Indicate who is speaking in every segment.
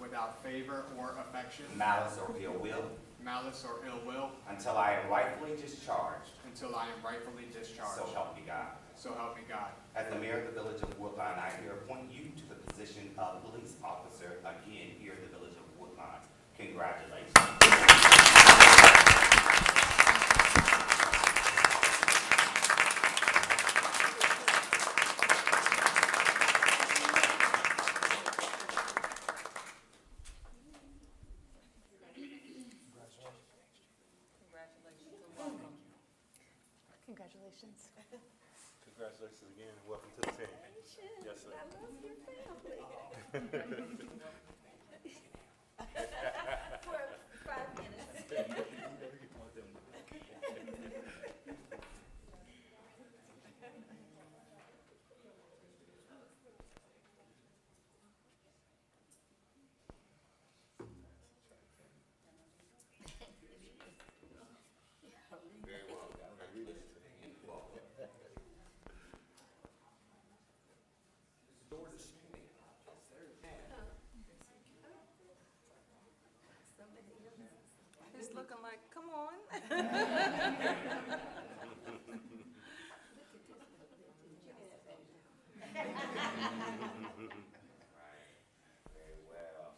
Speaker 1: without favor or affection,
Speaker 2: malice, or ill will
Speaker 1: malice, or ill will
Speaker 2: until I am rightfully discharged.
Speaker 1: until I am rightfully discharged.
Speaker 2: So help me God.
Speaker 1: So help me God.
Speaker 2: As the mayor of the village of Woodline, I here appoint you to the position of police officer again here in the village of Woodline. Congratulations.
Speaker 3: Congratulations and welcome.
Speaker 4: Congratulations.
Speaker 5: Congratulations again and welcome to the team. Yes, sir.
Speaker 3: For five minutes. It's looking like, come on.
Speaker 2: Very well.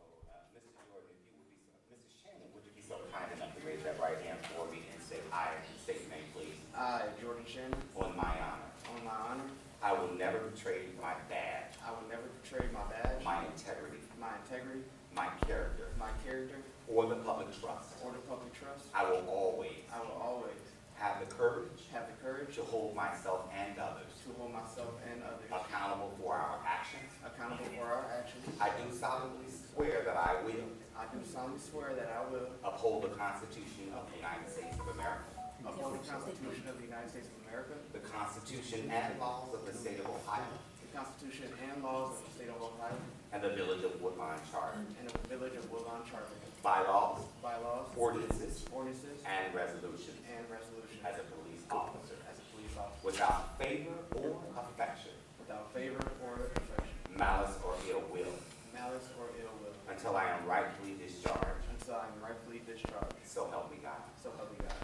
Speaker 2: Oh, uh, Mr. Jordan, if you would be, so- Mrs. Shannon, would you be so kind enough to raise that right hand for me and say I and state your name, please,
Speaker 6: I, Jordan Shannon,
Speaker 2: on my honor?
Speaker 6: on my honor,
Speaker 2: I will never betray my badge,
Speaker 6: I will never betray my badge,
Speaker 2: my integrity,
Speaker 6: my integrity,
Speaker 2: my character,
Speaker 6: my character,
Speaker 2: or the public trust.
Speaker 6: or the public trust.
Speaker 2: I will always
Speaker 6: I will always
Speaker 2: have the courage
Speaker 6: have the courage
Speaker 2: to hold myself and others
Speaker 6: to hold myself and others
Speaker 2: accountable for our actions.
Speaker 6: accountable for our actions.
Speaker 2: I do solemnly swear that I will
Speaker 6: I do solemnly swear that I will
Speaker 2: uphold the Constitution of the United States of America,
Speaker 6: uphold the Constitution of the United States of America,
Speaker 2: the Constitution and laws of the state of Ohio,
Speaker 6: the Constitution and laws of the state of Ohio,
Speaker 2: and the Village of Woodline Charter,
Speaker 6: and of the village of Woodlawn Charter,
Speaker 2: bylaws,
Speaker 6: bylaws,
Speaker 2: ordinances,
Speaker 6: ordinances,
Speaker 2: and resolutions
Speaker 6: and resolutions
Speaker 2: as a police officer,
Speaker 6: as a police officer,
Speaker 2: without favor or affection,
Speaker 6: without favor or affection,
Speaker 2: malice or ill will,
Speaker 6: malice or ill will.
Speaker 2: until I am rightfully discharged.
Speaker 6: Until I am rightfully discharged.
Speaker 2: So help me God.
Speaker 6: So help me God.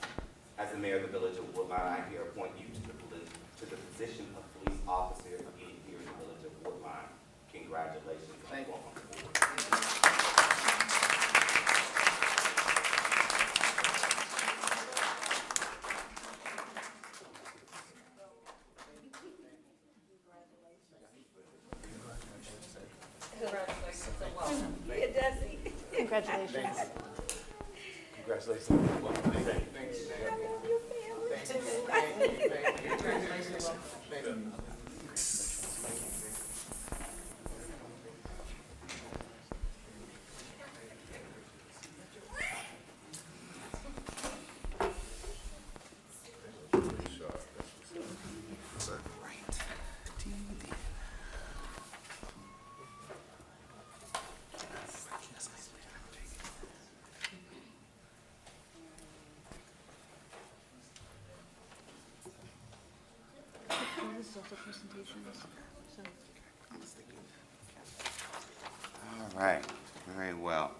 Speaker 2: As the mayor of the village of Woodline, I here appoint you to the police, to the position of police officer again here in the village of Woodline. Congratulations and
Speaker 6: Thank you.
Speaker 2: welcome aboard.
Speaker 3: Congratulations and welcome. It does.
Speaker 4: Congratulations.
Speaker 5: Congratulations and welcome to the team.
Speaker 4: This is also presentations, so.
Speaker 2: All right, very well.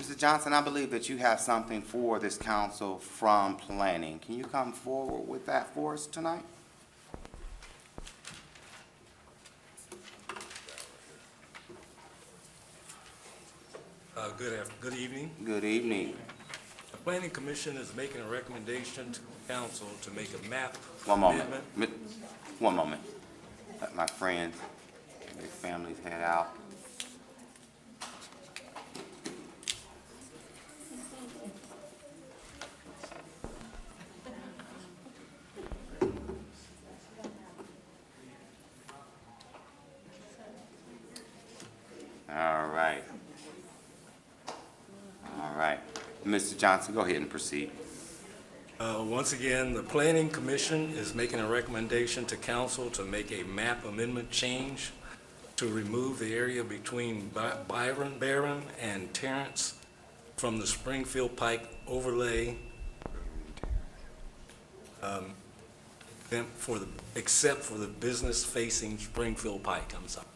Speaker 2: Mr. Johnson, I believe that you have something for this council from planning. Can you come forward with that for us tonight?
Speaker 7: Uh, Good af, good evening.
Speaker 2: Good evening.
Speaker 7: The Planning Commission is making a recommendation to council to make a map
Speaker 2: One moment.
Speaker 7: amendment.
Speaker 2: Mi- One moment. Let my friends, and their families head out. All right. All right. Mr. Johnson, go ahead and proceed.
Speaker 7: Uh, Once again, the Planning Commission is making a recommendation to council to make a map amendment change to remove the area between Bi- Byron, Barron and Terrence from the Springfield Pike overlay um, then for the, except for the business facing Springfield Pike, I'm sorry.